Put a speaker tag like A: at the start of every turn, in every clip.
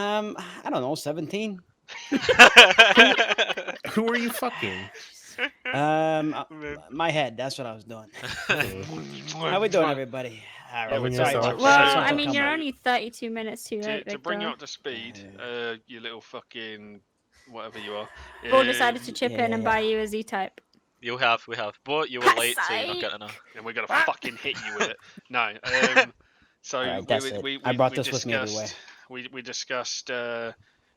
A: Um, I don't know, seventeen.
B: Who are you fucking?
A: Um, uh,
C: Man.
A: my head. That's what I was doing. How
C: How
A: we doing, everybody? All
B: Yeah,
A: right,
B: we
A: sorry,
B: need to-
A: sorry, sorry,
D: Well,
B: Well,
A: sorry,
D: I
A: sorry,
D: mean,
A: come
D: you're
A: on.
D: only 32 minutes too
C: To,
D: late,
C: to
D: Victor.
C: bring you up to speed,
A: Yeah.
C: uh, you little fucking whatever you are.
D: Paul decided to
C: um,
D: chip in and
A: yeah.
D: buy you a Z-type.
E: You have, we have. But you were late, so you're not
D: Psych.
E: getting her.
C: and we're gonna fucking hit you with it. No. Um, so
A: Alright,
C: we-
A: that's
C: we,
A: it.
C: we, we,
A: I brought
C: we
A: this with me everywhere.
C: discussed- We we discussed. Uh,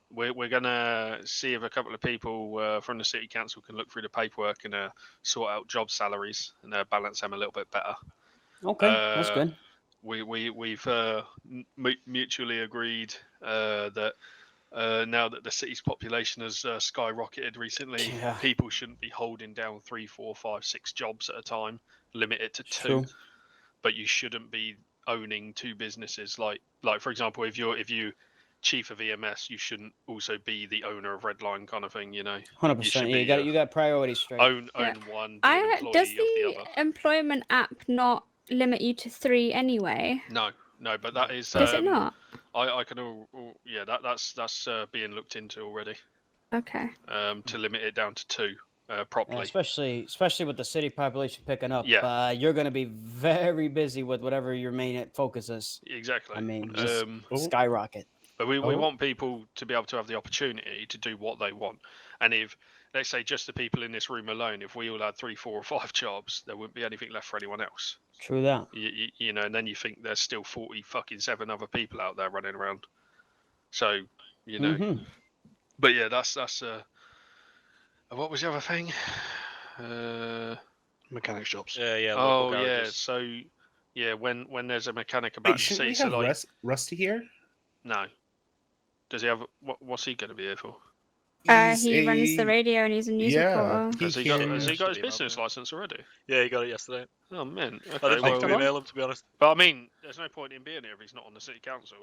C: we're we're gonna see if a couple of people uh, from the city council can look through the paperwork and uh, sort out job salaries and uh, balance them a little bit better.
A: Okay, that's
C: Uh,
A: good.
C: we we we've uh, mu- mutually agreed uh, that uh, now that the city's population has uh, skyrocketed recently,
A: Yeah.
C: people shouldn't be holding down three, four, five, six jobs at a time. Limit it to two,
A: True.
C: but you shouldn't be owning two businesses. Like like for example, if you're if you chief of EMS, you shouldn't also be the owner of Redline kind of thing. You know,
A: Hundred
C: you should
A: percent. Yeah, you
C: be,
A: got
C: uh,
A: you got priorities straight.
C: own
D: Yeah.
C: own one, be an
D: I
C: employee
D: does
C: of
D: the,
C: the other.
D: employment app not limit you to three anyway?
C: No, no, but that is
D: Does it
C: um,
D: not?
C: I, I can all, all- yeah that that's that's uh, being looked into already
D: Okay.
C: um,
A: Mm.
C: to limit it down to two uh,
A: And
C: properly.
A: especially especially with the city population picking up.
C: Yeah.
A: Uh, you're going to be very busy with whatever your main focus is.
C: Exactly.
A: I mean, just
C: um,
B: Oh.
A: skyrocket.
C: but we, we
B: oh.
C: want people to be able to have the opportunity to do what they want. And if let's say just the people in this room alone, if we all had three, four, or five jobs, there wouldn't be anything left for anyone else.
A: True that.
C: You, you, you know, and then you think there's still forty fucking seven other people out there running around. So you know,
A: Mhm.
C: but yeah, that's that's uh, what was the other thing? Uh, mechanic shops.
E: Yeah, yeah.
C: Oh
E: local
C: yeah,
E: garages.
C: so yeah, when when there's a mechanic about
B: Wait,
C: to
B: should
C: see,
B: we
C: so
B: have
C: like
B: Rust, Rusty here?
C: no, does he have what? What's he going to be here for?
D: Uh,
B: He's
D: he runs the
B: a-
D: radio and he's a news
B: Yeah,
D: reporter.
C: Has he, got, has he got his
E: Yeah.
C: business license already?
E: Yeah, you got it yesterday.
C: Oh man,
E: I
C: okay,
E: didn't think to
C: well,
E: email him, to be honest.
C: but I mean, there's no point in being here if he's not on the city council.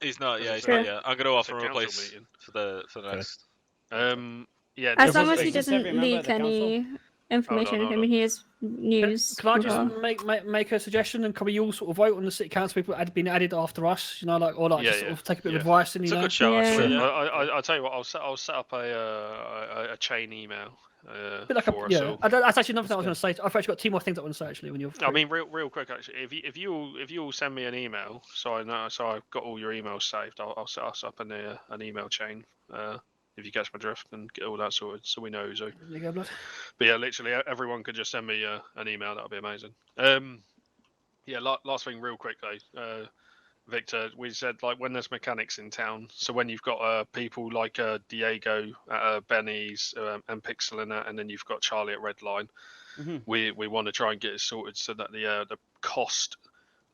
E: He's not,
C: Does
E: yeah,
C: it
E: he's
D: say-
E: not, yeah. I'm going to
C: It's a
E: offer him a
C: council
E: place
C: meeting.
E: for the for the
B: Okay.
E: next.
C: Um, yeah,
D: As
A: Does
D: long
A: this-
D: as he
A: is this every
D: doesn't
A: member of
D: leak
A: the council?
D: any information,
C: hold
D: I
C: on.
D: mean, he is
F: Can,
D: news.
F: can I just
D: reporter.
F: make, make make a suggestion and can we all sort of vote on the city council people that had been added after us, you know, like or like
C: Yeah,
F: just sort
C: yeah,
F: of take a bit
C: yeah.
F: of advice and
E: It's
F: you
E: a
F: know
E: good show, actually.
C: I,
E: Yeah.
C: I, I- I'll tell you what, I'll set I'll set up a uh, a, a chain email uh,
F: a bit like a,
C: for us
F: yeah.
C: all.
F: I don't- that's actually another thing I was going to say. I've actually got two more things I want to say actually when you're.
C: I
F: free.
C: mean, real, real quick actually. If you, if you all, if you all send me an email, so I know, so I've got all your emails saved. I'll, I'll set us up an uh, an email chain. Uh, if you catch my drift and get all that sorted, so we know who's who.
F: There you go, blood.
C: But yeah, literally e- everyone could just send me uh, an email. That would be amazing. Um, yeah. La- last thing, real quick though, uh, Victor, we said like when there's mechanics in town. So when you've got uh, people like uh, Diego at uh, Benny's um, and Pixel and that, and then you've got Charlie at Redline
A: Mhm.
C: we we want to try and get it sorted so that the uh, the cost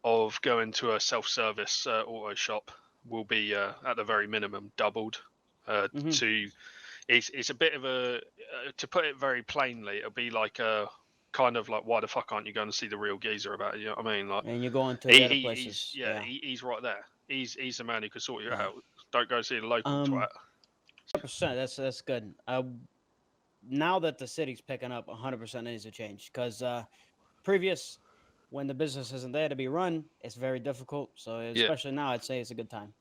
C: of going to a self-service uh, auto shop will be uh, at the very minimum doubled uh,
A: Mhm.
C: to it's it's a bit of a uh, to put it very plainly it'll be like a kind of like why the fuck aren't you going to see the real geezer about it you know what i mean like
A: And you're going to the
C: he,
A: other
C: he-
A: places.
C: he's, yeah, He, he's right there he's he's the man who could sort you
A: Yeah.
C: out don't go see the local
A: Um,
C: twat
A: Hundred percent. That's that's good. Uh, now that the city's picking up, hundred percent needs to change because uh, previous, when the business isn't there to be run, it's very difficult. So
C: Yeah.
A: especially now, I'd say it's a good time.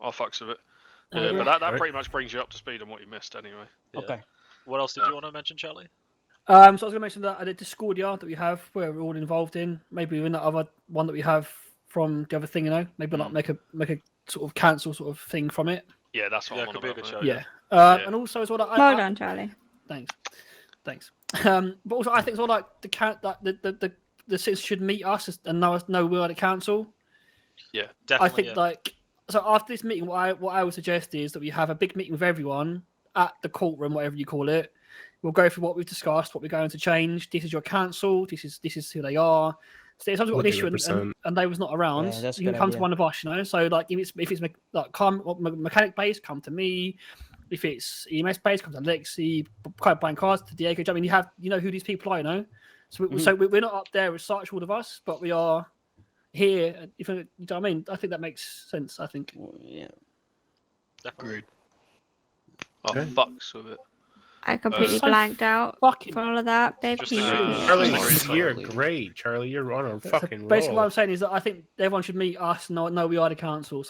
C: i fucks with it
F: Oh,
C: yeah,
F: yeah.
C: but that, that
B: Right.
C: pretty much brings you up to speed on what you missed anyway
E: Yeah.
A: Okay.
E: What else did
C: Yeah.
E: you want to mention, Charlie?
F: Um, so I was going to mention that at the Discordia that we have, where we're all involved in, maybe in that other one that we have from the other thing, you know, maybe
C: Hmm.
F: like make a make a sort of cancel sort of thing from it.
C: yeah that's what
E: Yeah, it
C: i'm on
E: could be a
C: about,
E: good show.
C: mate.
F: Yeah. Um,
C: Oh, Yeah.
F: And also as well, I,
D: Well
F: I,
D: done, Charlie.
F: thanks, thanks. Um, but also I think as well like the count that the the, the the citizens should meet us as- and know us know we're at the council.
E: Definitely.
F: I think
E: yeah.
F: like so after this meeting, what I what I would suggest is that we have a big meeting with everyone at the courtroom, whatever you call it. We'll go through what we've discussed, what we're going to change. This is your council. This is this is who they are. So if someone's got an issue and, and,
B: 100%.
F: and they was not around,
A: Yeah, that's a
F: you can
A: good
F: come
A: idea.
F: to one of us. You know, so like if it's if it's me- like come what, me- mechanic based, come to me. If it's E EMS based, come to Lexi. b- Quite buying cars to Diego. Do you know what I mean, you have you know who these people are. You know, so we,
A: Mhm.
F: so we- we're not up there as such, all of us, but we are here. and If you know what I mean, I think that makes sense. I think.
A: Well, yeah.
E: Definitely.
C: I
B: Okay.
C: Oh, fucks with it.
D: I completely
F: so
D: blanked out
F: Fucking.
D: for all of that, babe.
E: Just
D: Can you
E: a-
D: repeat it?
B: Charlie,
E: Sorry,
B: you're
E: Charlie.
B: great, Charlie. You're on a
F: So
B: fucking
F: basically, what
B: roll.
F: I'm saying is that I think everyone should meet us. No, no, we are the council.